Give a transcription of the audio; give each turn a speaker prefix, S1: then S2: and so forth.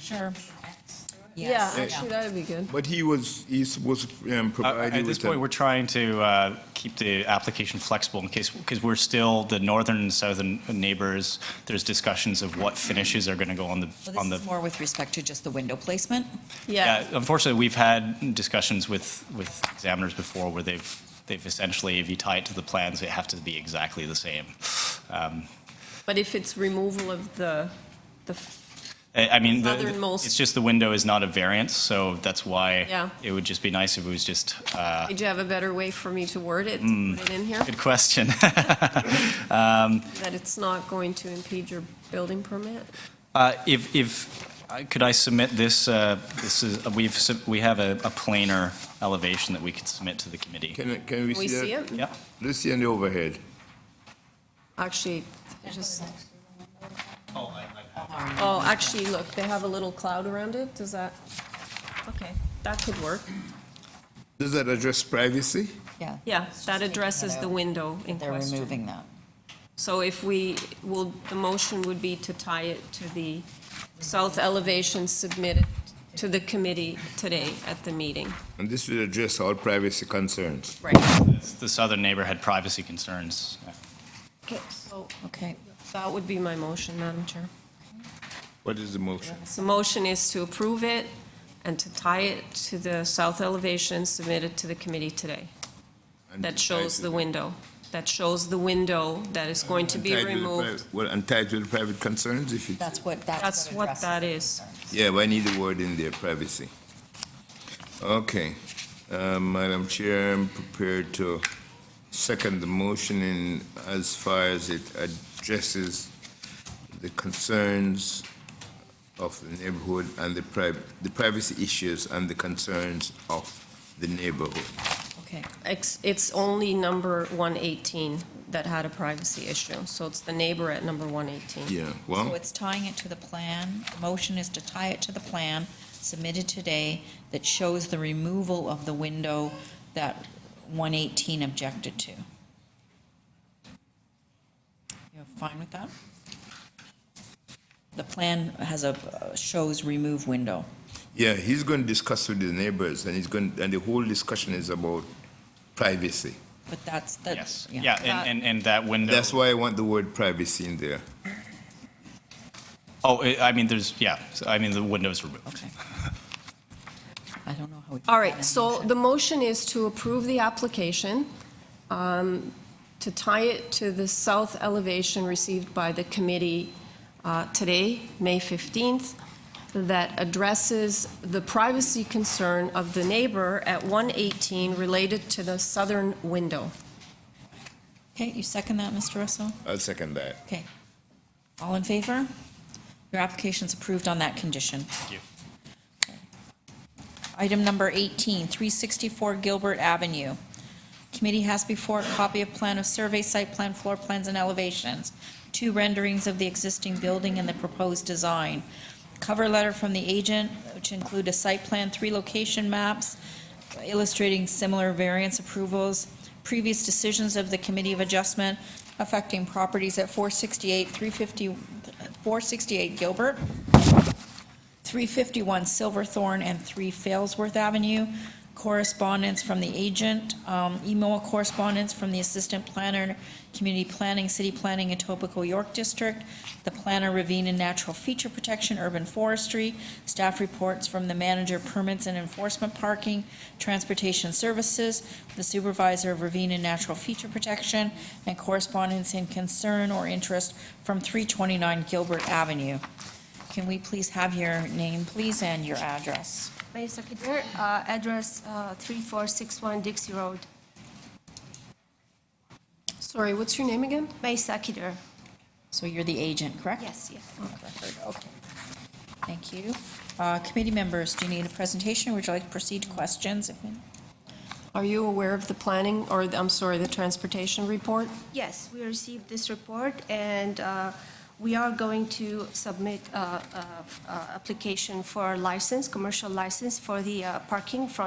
S1: Sure.
S2: Yeah,
S1: Yes.
S2: actually, that'd be good.
S3: But he was, he's supposed to um,
S4: Uh,
S3: provide you
S4: At
S3: with
S4: this point,
S3: the.
S4: we're trying to uh, keep the application flexible in case, because we're still, the northern and southern neighbors, there's discussions of what finishes are going to go on the,
S1: Well,
S4: on
S1: this
S4: the.
S1: is more with respect to just the window placement.
S2: Yeah,
S4: Unfortunately, we've had discussions with, with examiners before where they've, they've essentially, if you tie it to the plans, they have to be exactly the same. Um,
S2: but if it's removal of the, the, f-
S4: I I mean, the-
S2: Southernmost-
S4: it's just the window is not a variance, so that's
S2: Yeah.
S4: why it would just be nice if it was just uh,
S2: did you have a better way for me to word it, to put Ah. Mm. it in here?
S4: Good question.
S2: That it's not going to impede your building permit?
S4: Uh, If, if, I- could I submit this, uh, this is, we've, sub- we have a a planar elevation that we could submit to the committee.
S3: Can, it- can we
S2: Can we
S3: see
S2: see
S3: that?
S2: it?
S4: Yeah,
S3: Let's see on the overhead.
S2: Actually, I just,
S1: Lauren,
S2: oh, actually, look, they have a little cloud around it, does that? Okay, that could work.
S3: Does that address privacy?
S1: Yeah.
S2: Yeah,
S1: It's just
S2: that
S1: taking
S2: addresses
S1: it
S2: the
S1: out.
S2: window in
S1: They're
S2: question.
S1: removing that.
S2: So if we, will, the motion would be to tie it to the south elevation submitted to the committee today at the meeting.
S3: And this will address all privacy concerns.
S2: Right.
S4: the southern neighbor had privacy concerns.
S2: Okay, so
S1: Okay.
S2: that would be my motion, Madam Chair.
S3: What is the motion?
S2: So motion is to approve it and to tie it to the south elevation submitted to the committee today.
S3: And
S2: That shows the
S3: tied
S2: window, that shows the window that is going to
S3: to-
S2: be
S3: tied to the
S2: removed.
S3: private- Well, and tied to the private concerns, if you,
S1: That's what, that's.
S2: That's what
S1: addresses
S2: that
S1: the
S2: is.
S1: concerns.
S3: yeah, but I need the word in there, privacy. Okay. Uh, Madam Chair, I'm prepared to second the motion in as far as it addresses the concerns of the neighborhood and the priv, the privacy issues and the concerns of the neighborhood.
S1: Okay.
S2: It's, it's only number 118 that had a privacy issue, so it's the neighbor at number 118.
S3: Yeah,
S1: So
S3: well,
S1: it's tying it to the plan. The motion is to tie it to the plan submitted today that shows the removal of the window that 118 objected to. You're fine with that? The plan has a, uh, shows remove window.
S3: yeah, he's going to discuss with the neighbors and he's going, and the whole discussion is about privacy.
S1: But that's, that.
S4: Yes, yeah, and- and, and that window.
S3: That's why I want the word privacy in there.
S4: Oh, I I mean, there's, yeah, so, I mean, the window's removed.
S1: Okay. I don't know how we.
S2: All right, so the motion is to approve the application, um, to tie it to the south elevation received by the committee uh, today, May 15th, that addresses the privacy concern of the neighbor at 118 related to the southern window.
S1: Okay, you second that, Mr. Russell?
S3: I'll second that.
S1: Okay. All in favor? Your application's approved on that condition.
S4: Thank you.
S1: Item number 18, 364 Gilbert Avenue. Committee has before it copy of plan of survey, site plan, floor plans, and elevations, two renderings of the existing building and the proposed design, cover letter from the agent, which include a site plan, three location maps illustrating similar variance approvals, previous decisions of the Committee of Adjustment affecting properties at 468, 350, 468 Gilbert, 351 Silverthorne and 3 Failsworth Avenue. Correspondence from the agent, um, email correspondence from the assistant planner, community planning, city planning, Etobicoke York District, the planner ravine and natural feature protection, urban forestry, staff reports from the manager permits and enforcement parking, transportation services, the supervisor of ravine and natural feature protection, and correspondence in concern or interest from 329 Gilbert Avenue. Can we please have your name, please, and your address?
S5: Mayor Secretary, uh, address uh, 3461 Dixie Road,
S2: Sorry, what's your name again?
S5: Mayor Secretary.
S1: So you're the agent, correct?
S5: Yes, yes.
S1: On record, Okay. Thank you. Uh, Committee members, do you need a presentation? Would you like to proceed to questions?
S2: Are you aware of the planning, or, I'm sorry, the transportation report?
S5: Yes, we received this report, and uh, we are going to submit uh, uh, uh, application for license, commercial license for the uh, parking from